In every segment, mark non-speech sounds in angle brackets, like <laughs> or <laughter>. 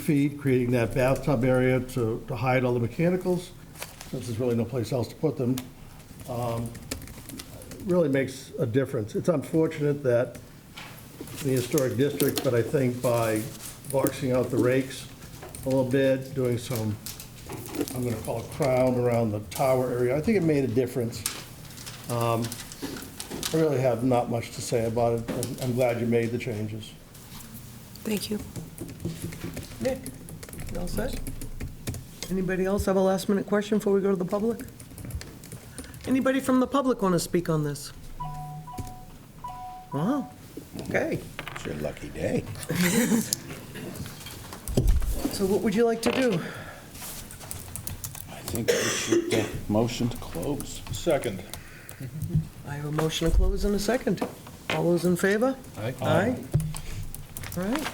feet, creating that bathtub area to, to hide all the mechanicals, since there's really no place else to put them, um, really makes a difference. It's unfortunate that the historic district, but I think by boxing out the rakes a little bit, doing some, I'm gonna call it crown around the tower area, I think it made a difference. Um, I really have not much to say about it. I'm- I'm glad you made the changes. Thank you. Nick, you all set? Anybody else have a last-minute question before we go to the public? Anybody from the public want to speak on this? Wow, okay. It's your lucky day. So what would you like to do? I think we should, uh, motion to close. Second. I have a motion to close in a second. All those in favor? Aye. Aye. All right,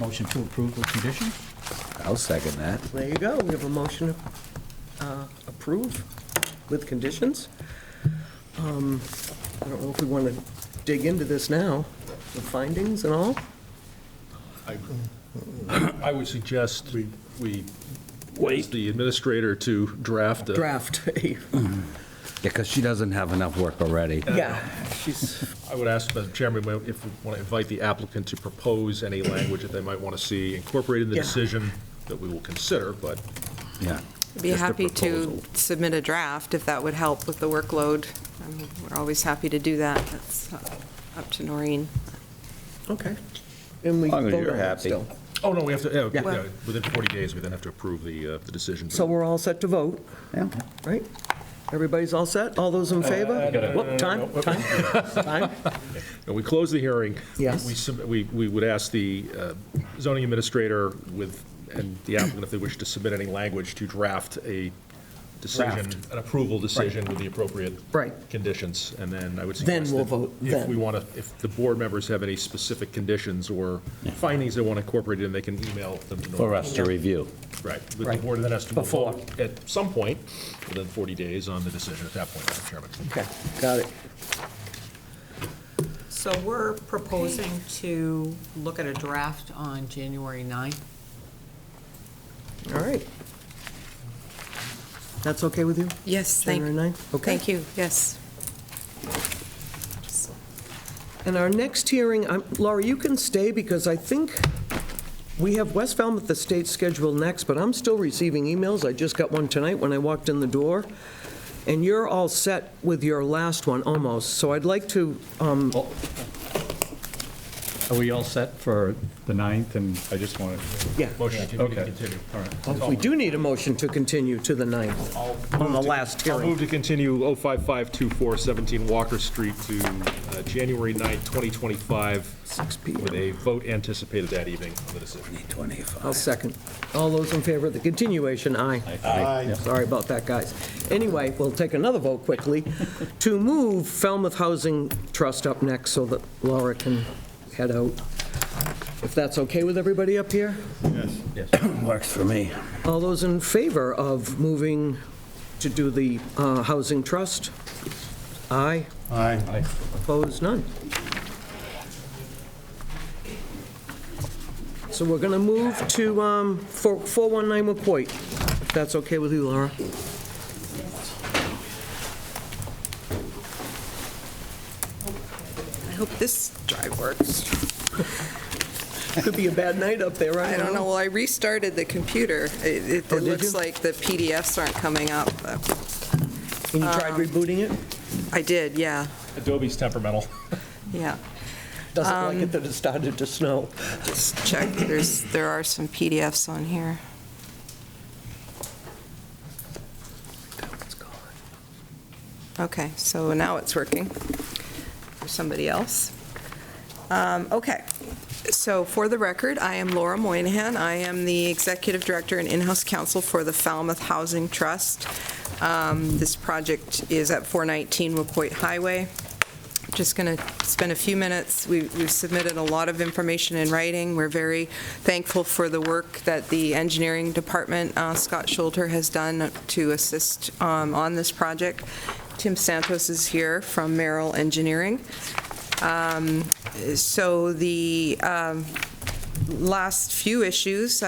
Motion to approve with conditions? I'll second that. there you go. We have a motion to uh, approve with conditions. Um, I don't know if we want to dig into this now, the findings and all. I would suggest we wait the administrator to draft a- draft. Yeah, because she doesn't have enough work already. Yeah, she's, I would ask Madam Chairman if we want to invite the applicant to propose any language that they might want to see incorporated in the Yeah. decision that we will consider, but Yeah. Be Just a happy to proposal. submit a draft if that would help with the workload. I mean, We're always happy to do that. That's uh, up to Noreen. okay. And we As long as vote you're on it happy. still. Oh, no, we have to, yeah, Yeah. yeah, within 40 days, we then have to approve the, uh, the decision. So we're all set to vote, Yeah. right? Everybody's all set? All those in favor? Whoop, time, time, time. And we close the hearing. Yes. We sub- We, we would ask the uh, zoning administrator with, and the applicant if they wish to submit any language to draft a decision, Draft. an approval decision with the appropriate. Right. Conditions, and then I would Then suggest. we'll that vote, If then. we want to, if the board members have any specific conditions or findings they want incorporated, in, they can email them to. For Norm. us to review. Right, but the Right. board then has to Before. vote at some point, within 40 days, on the decision at that point, Madam Chairman. Okay, got it. So we're proposing to look at a draft on January 9th? All right. That's okay with you? Yes, January thank, 9th? Okay. thank you, yes. And our next hearing, I'm- Laura, you can stay because I think we have West Falmouth Estates scheduled next, but I'm still receiving emails. I just got one tonight when I walked in the door. And you're all set with your last one, almost. So I'd like to, um, Are we all set for the 9th? And I just wanted, yeah, Motion to Okay. continue. all right. oh, we do need a motion to continue to the 9th on the last I'll hearing. move to continue 05524 17 Walker Street to uh, January 9th, 2025. 6 With PM. a vote anticipated that evening on the decision. I'll second. All those in favor of the continuation, aye. Aye. Sorry about that, guys. Anyway, we'll take another vote quickly to move Falmouth Housing Trust up next so that Laura can head out. If that's okay with everybody up here? Works for me. All those in favor of moving to do the uh, Housing Trust? Aye. Aye. Opposed, none. So we're going to move to um, four- 419 McCoy, if that's okay with you, Laura. I hope this drive works. Could be a bad night up there, right? I don't know, well, I restarted the computer. It- It Oh, it did looks you? like the PDFs aren't coming up. And you tried rebooting it? I did, yeah, Adobe's temperamental. <laughs> yeah. Doesn't like it that it started to snow. Just check, there's, there are some PDFs on here. Okay, so now it's working for somebody else. Um, Okay, so for the record, I am Laura Moynihan. I am the Executive Director and in-house counsel for the Falmouth Housing Trust. Um, This project is at 419 Wacoit Highway. Just going to spend a few minutes. We- We've submitted a lot of information in writing. We're very thankful for the work that the engineering department, uh, Scott Schulter, has done to assist um, on this project. Tim Santos is here from Merrill Engineering. Um, So the um, last few issues,